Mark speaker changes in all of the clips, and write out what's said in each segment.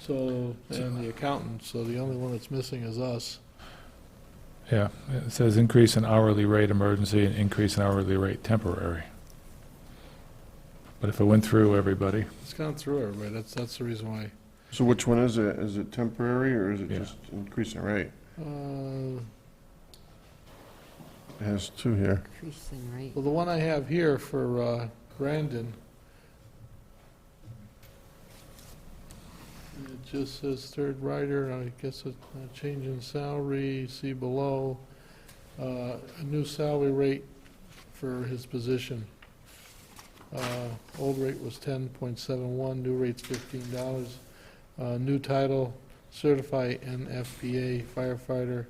Speaker 1: So, uh, and the accountant, so the only one that's missing is us.
Speaker 2: Yeah, it says increase in hourly rate emergency and increase in hourly rate temporary. But if it went through everybody,
Speaker 1: It's gone through everybody, that's, that's the reason why.
Speaker 3: So which one is it? Is it temporary or is it
Speaker 2: Yeah.
Speaker 3: just increasing rate?
Speaker 1: Uh,
Speaker 3: It has two here.
Speaker 4: Increasing rate.
Speaker 1: Well, the one I have here for uh, Brandon, it just says third rider, I guess it's a change in salary, see below, uh, a new salary rate for his position. Uh, Old rate was 10.71, new rate's $15. Uh, New title, certified NFPA firefighter,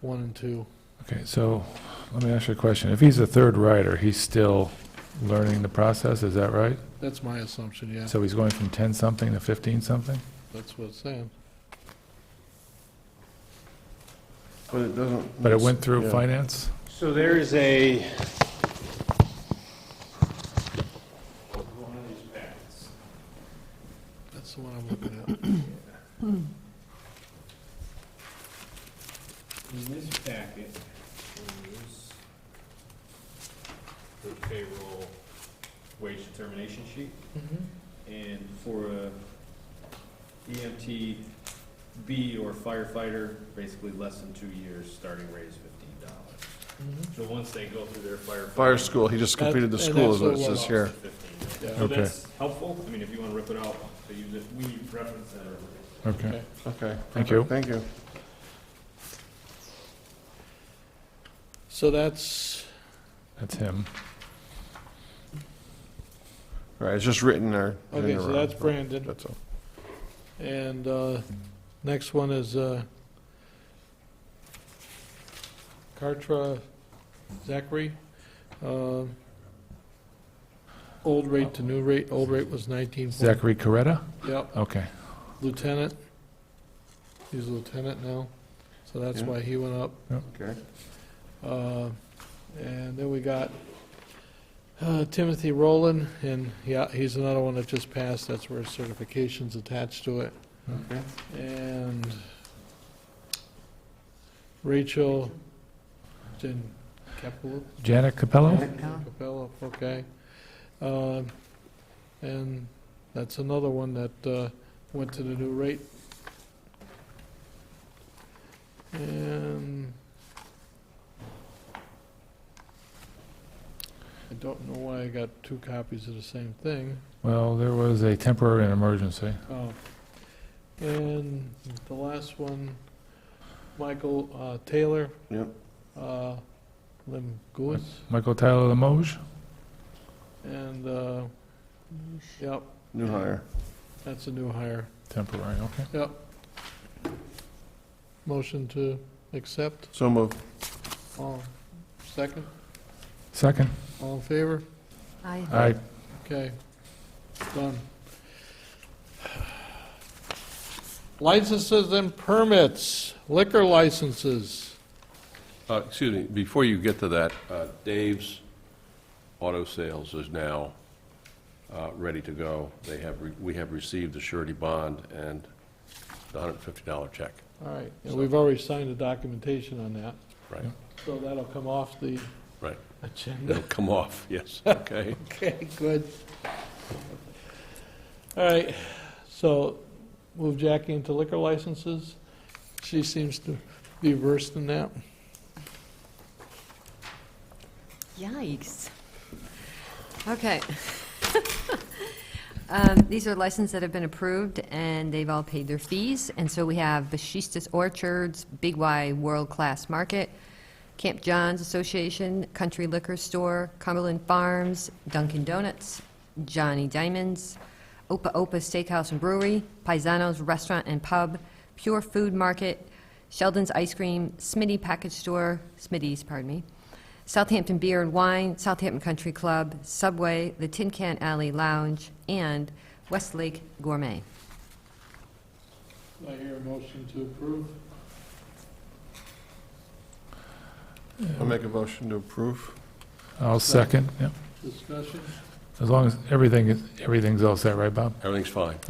Speaker 1: one and two.
Speaker 2: okay, so let me ask you a question. If he's a third rider, he's still learning the process, is that right?
Speaker 1: That's my assumption, yeah,
Speaker 2: So he's going from 10-something to 15-something?
Speaker 1: that's what it's saying.
Speaker 3: But it doesn't.
Speaker 2: But it went through
Speaker 3: Yeah.
Speaker 2: finance?
Speaker 5: So there is a.
Speaker 1: That's the one I'm looking at.
Speaker 5: In this packet is the payroll wage determination sheet.
Speaker 1: Mm-hmm,
Speaker 5: And for a EMT B or firefighter, basically less than two years, starting rate is fifteen dollars.
Speaker 1: mm-hmm.
Speaker 5: So once they go through their firefighter.
Speaker 3: Fire school, he just
Speaker 1: That-
Speaker 3: completed the
Speaker 1: and
Speaker 3: school
Speaker 1: that's
Speaker 3: is what
Speaker 1: the
Speaker 3: it
Speaker 1: one.
Speaker 3: says here.
Speaker 1: Yeah.
Speaker 5: So
Speaker 2: Okay.
Speaker 5: that's helpful, I mean, if you wanna rip it out, but you, we reference that earlier.
Speaker 2: Okay,
Speaker 3: Okay.
Speaker 2: Thank you.
Speaker 3: Thank you.
Speaker 1: So that's,
Speaker 2: that's him.
Speaker 3: All Right, it's just written there. in
Speaker 1: okay,
Speaker 3: the
Speaker 1: so
Speaker 3: wrong,
Speaker 1: that's
Speaker 3: but
Speaker 1: Brandon,
Speaker 3: That's all.
Speaker 1: and, uh, next one is, uh, Kartra Zachary. Um, Old rate to new rate, old rate was nineteen. point-
Speaker 2: Zachary Coretta?
Speaker 1: Yep,
Speaker 2: Okay,
Speaker 1: lieutenant. He's a lieutenant now, so that's
Speaker 3: Yeah.
Speaker 1: why he went up.
Speaker 3: Okay.
Speaker 1: Uh, And then we got uh, Timothy Rowland, and yeah, he's another one that just passed, that's where certification's attached to it.
Speaker 3: Okay.
Speaker 1: And Rachel Jan Capello,
Speaker 2: Janet Capello?
Speaker 4: Capella.
Speaker 1: Capello, okay. Um, And that's another one that uh, went to the new rate. And I don't know why I got two copies of the same thing.
Speaker 2: Well, there was a temporary and emergency.
Speaker 1: Oh, and the last one, Michael uh, Taylor.
Speaker 3: Yep.
Speaker 1: Uh, Lim Gouis,
Speaker 2: Michael Tyler Lemoge?
Speaker 1: and, uh,
Speaker 4: Oh,
Speaker 1: yep,
Speaker 3: New hire.
Speaker 1: that's a new hire.
Speaker 2: Temporary, okay.
Speaker 1: Yep. Motion to accept,
Speaker 3: So move.
Speaker 1: all, second,
Speaker 2: Second?
Speaker 1: all in favor?
Speaker 4: Aye.
Speaker 2: Aye.
Speaker 1: Okay, done. Licenses and permits, liquor licenses.
Speaker 6: Uh, Excuse me, before you get to that, uh, Dave's Auto Sales is now uh, ready to go. They have, re- we have received the surety bond and the $150 check.
Speaker 1: All right, and we've already signed the documentation on that,
Speaker 6: Right,
Speaker 1: so that'll come off the
Speaker 6: right.
Speaker 1: agenda.
Speaker 6: It'll come off, yes, okay.
Speaker 1: Okay, good. All right, so move Jackie into liquor licenses. She seems to be versed in that.
Speaker 4: Yikes. Okay. Um, These are licenses that have been approved, and they've all paid their fees. And so we have Bashistas Orchards, Big Y World Class Market, Camp John's Association, Country Liquor Store, Cumberland Farms, Dunkin' Donuts, Johnny Diamonds, Opa Opa Steakhouse and Brewery, Paisano's Restaurant and Pub, Pure Food Market, Sheldon's Ice Cream, Smitty Package Store, Smitty's, pardon me, Southampton Beer and Wine, Southampton Country Club, Subway, the Tin Can Alley Lounge, and Westlake Gourmet.
Speaker 1: I hear a motion to approve.
Speaker 3: I'll make a motion to approve.
Speaker 2: I'll second, yeah.
Speaker 1: Discussion?
Speaker 2: As long as everything, is everything's all set, right, Bob?
Speaker 6: Everything's fine.